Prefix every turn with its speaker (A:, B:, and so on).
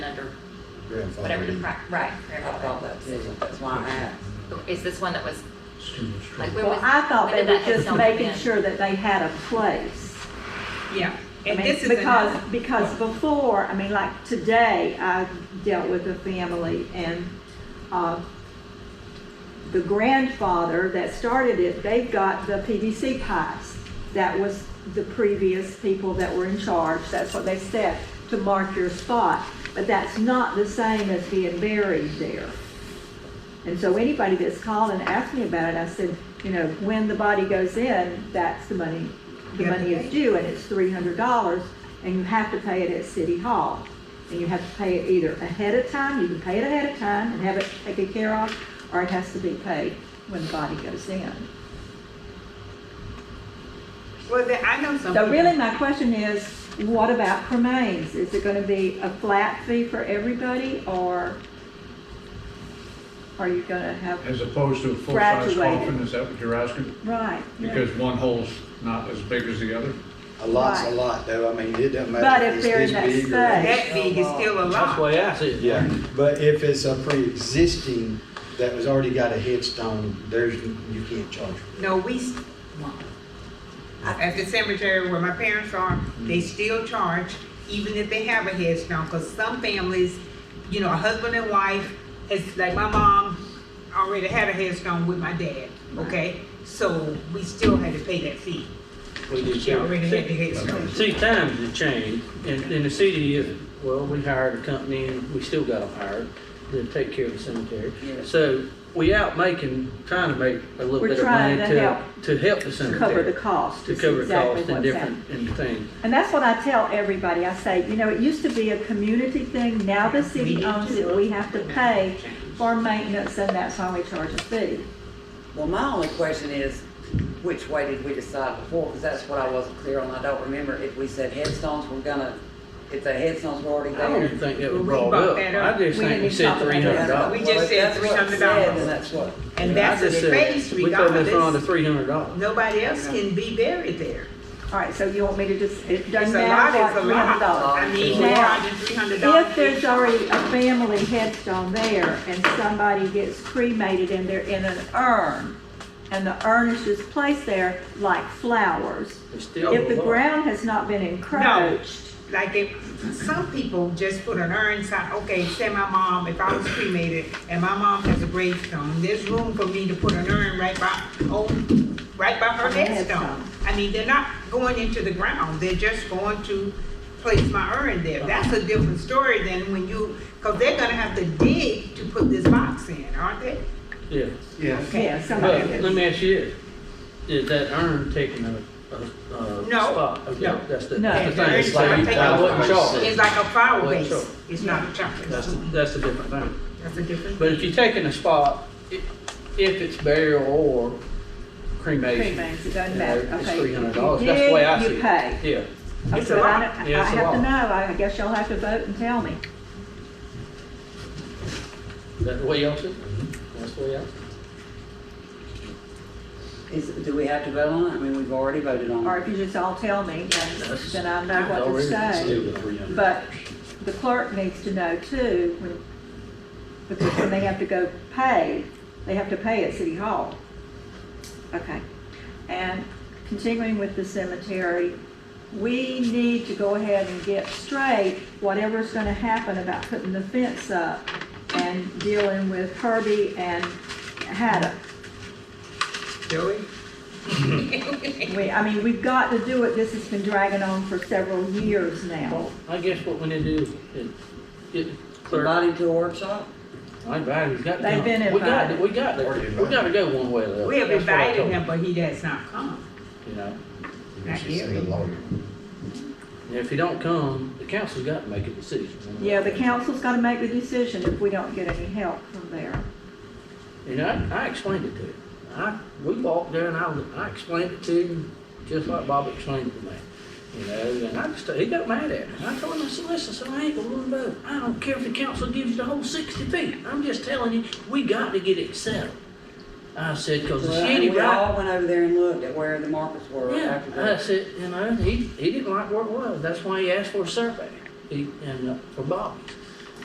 A: grandfather.
B: whatever the, pri- right,
C: I thought
B: grandfather.
C: that too, that's why I asked.
B: Is this one that was,
D: Students.
B: like, when
E: Well,
B: was?
E: I thought they
B: when did that
E: were just
B: headstone
E: making
B: come in?
E: sure that they had a place.
F: Yeah,
E: I
F: and
E: mean,
F: this is
E: because,
F: another-
E: because before, I mean, like today, I dealt with a family and, uh, the grandfather that started it, they've got the PVC pipes. That was the previous people that were in charge, that's what they said, to mark your spot. But that's not the same as being buried there. And so anybody that's called and asked me about it, I said, you know, when the body goes in, that's the money, the
F: You have
E: money
F: to pay.
E: is due, and it's three hundred dollars, and you have to pay it at City Hall. And you have to pay it either ahead of time, you can pay it ahead of time and have it taken care of, or it has to be paid when the body goes in.
F: Well, then, I know some.
E: So
F: people-
E: really, my question is, what about cremains? Is it gonna be a flat fee for everybody, or are you gonna have,
D: As opposed to a full-size
E: Graduated.
D: coffin, is that what you're asking?
E: right? yeah.
D: Because one hole's not as big as the other?
A: A lot's a
E: Right.
A: lot, though, I mean, it doesn't matter.
E: But if
A: it's
E: they're in
A: this
E: that
A: big or-
F: That
E: space.
F: big is still a
G: That's the
F: lot.
G: way I see it.
A: Yeah, but if it's a pre-existing that was already got a headstone, there's, you can't charge for
F: No, we, s- at the cemetery where my parents are, they still charge, even if they have a headstone, because some families, you know, a husband and wife, it's like my mom already had a headstone with my dad, okay? So we still had to pay that fee.
G: We just-
F: She already had the headstone.
G: See, times have changed, and, and the city is, well, we hired a company, and we still got them hired to take care of the cemetery.
C: Yeah.
G: So we out making, trying to make a little
E: We're
G: bit of
E: trying
G: money
E: to
G: to,
E: help-
G: to help the
E: To
G: cemetery.
E: cover the cost.
G: To
E: is
G: cover
E: exactly
G: costs and
E: what's happening.
G: different, and things.
E: And that's what I tell everybody. I say, you know, it used to be a community thing. Now the city owns it. We have to pay for maintenance and that's why we charge a fee.
C: Well, my only question is, which way did we decide before? Because that's what I wasn't clear on. I don't remember if we said headstones were gonna, if the headstones were already
G: I don't even
C: there.
G: think that
F: We
G: was brought
F: bought
G: up.
F: that up.
G: I just
E: We
G: think
E: didn't
G: we
E: even
G: said
E: talk about
G: three hundred
C: Yeah,
G: dollars.
C: well,
F: We
C: if
F: just said
C: that's what it
F: $300.
C: said, Then that's what.
F: And that's
G: I
F: the
G: just said,
F: space
G: We throw this on to
F: regardless.
G: three hundred dollars.
F: Nobody else can be buried there.
E: All right, so you want me to just, it
F: It's
E: doesn't
F: a lot,
E: matter
F: it's
E: what,
F: a
E: three hundred
F: lot.
E: dollars.
F: I mean, four
E: Now,
F: hundred, three hundred dollars.
E: If there's already a family headstone there and somebody gets cremated and they're in an urn and the urn is just placed there like flowers,
G: It's still
E: if the
G: a lot.
E: ground has not been encroached,
F: like if some people just put an urn side, okay, say my mom, if I was cremated and my mom has a gravestone, there's room for me to put an urn right by, oh, right by her
E: On the
F: headstone.
E: headstone.
F: I mean, they're not going into the ground, they're just going to place my urn there. That's a different story than when you, cause they're gonna have to dig to put this box in, aren't they?
G: Yeah.
F: Okay.
E: yeah,
G: But
E: somebody.
G: let me ask you this, is that urn taking a, a, a
F: No,
G: spot? Okay,
F: no.
G: That's the,
E: No.
G: that's the
F: Yeah,
G: thing,
F: it's
G: it's like,
F: like
G: I wasn't
A: taking a
G: sure.
F: It's like a flower
G: Well,
F: base,
G: sure.
F: it's not a chopper,
G: That's,
F: that's
G: that's a different thing.
F: a different.
G: But if you're taking a spot, i- if it's burial or cremation.
E: Cremains, it doesn't
G: you know,
E: matter,
G: It's
E: okay.
G: three hundred
E: If
G: dollars,
E: you
G: that's the way I see
E: dig,
G: it.
E: you pay.
G: Yeah,
E: Okay,
F: It's a
E: but
F: lot.
E: I don't- I
G: Yeah,
E: I
G: it's a
E: have to
G: lot.
E: know, I I guess y'all have to vote and tell me.
G: Is that the way y'all see it, that's the way I see it.
C: Is, do we have to vote on it? I mean, we've already voted on
E: Or
C: it.
E: if you just all tell me, then
G: That's-
E: then I know what to
G: already
A: it.
E: say.
A: Still the three hundred.
E: But the clerk needs to know too, when- because when they have to go pay, they have to pay at City Hall. Okay. And continuing with the cemetery, we need to go ahead and get straight whatever's gonna happen about putting the fence up and dealing with Herbie and Haddock.
F: Joey?
E: We, I mean, we've got to do it, this has been dragging on for several years now.
G: Well, I guess what we need to do is get the clerk,
C: Somebody to a workshop?
G: I invited, he's got to
E: They've
G: come.
E: been
G: We got to-
E: invited.
G: We got,
A: Already
G: to- we
A: invited.
G: got to go one way or the other.
F: We have
G: That's what I
F: invited
G: told
F: him, but he does not come.
G: You know,
A: You should send a lawyer.
G: and if he don't come, the council's got to make a decision.
E: Yeah, the council's got to make the decision if we don't get any help from there.
G: You know, I, I explained it to him. I, we walked there and I, was- I explained it to him, just like Bob explained it to me. You know, and I just, he got mad at me. I told him, I said, listen, so I ain't gonna run vote. I don't care if the council gives you the whole sixty feet. I'm just telling you, we got to get it settled. I said, cause the
C: Well,
G: city
C: and we
G: right.
C: all went over there and looked at where the markets were
G: Yeah,
C: after
G: I
C: that.
G: said, you know, he, he didn't like where it was. That's why he asked for a survey. He, and, uh, for Bobby's.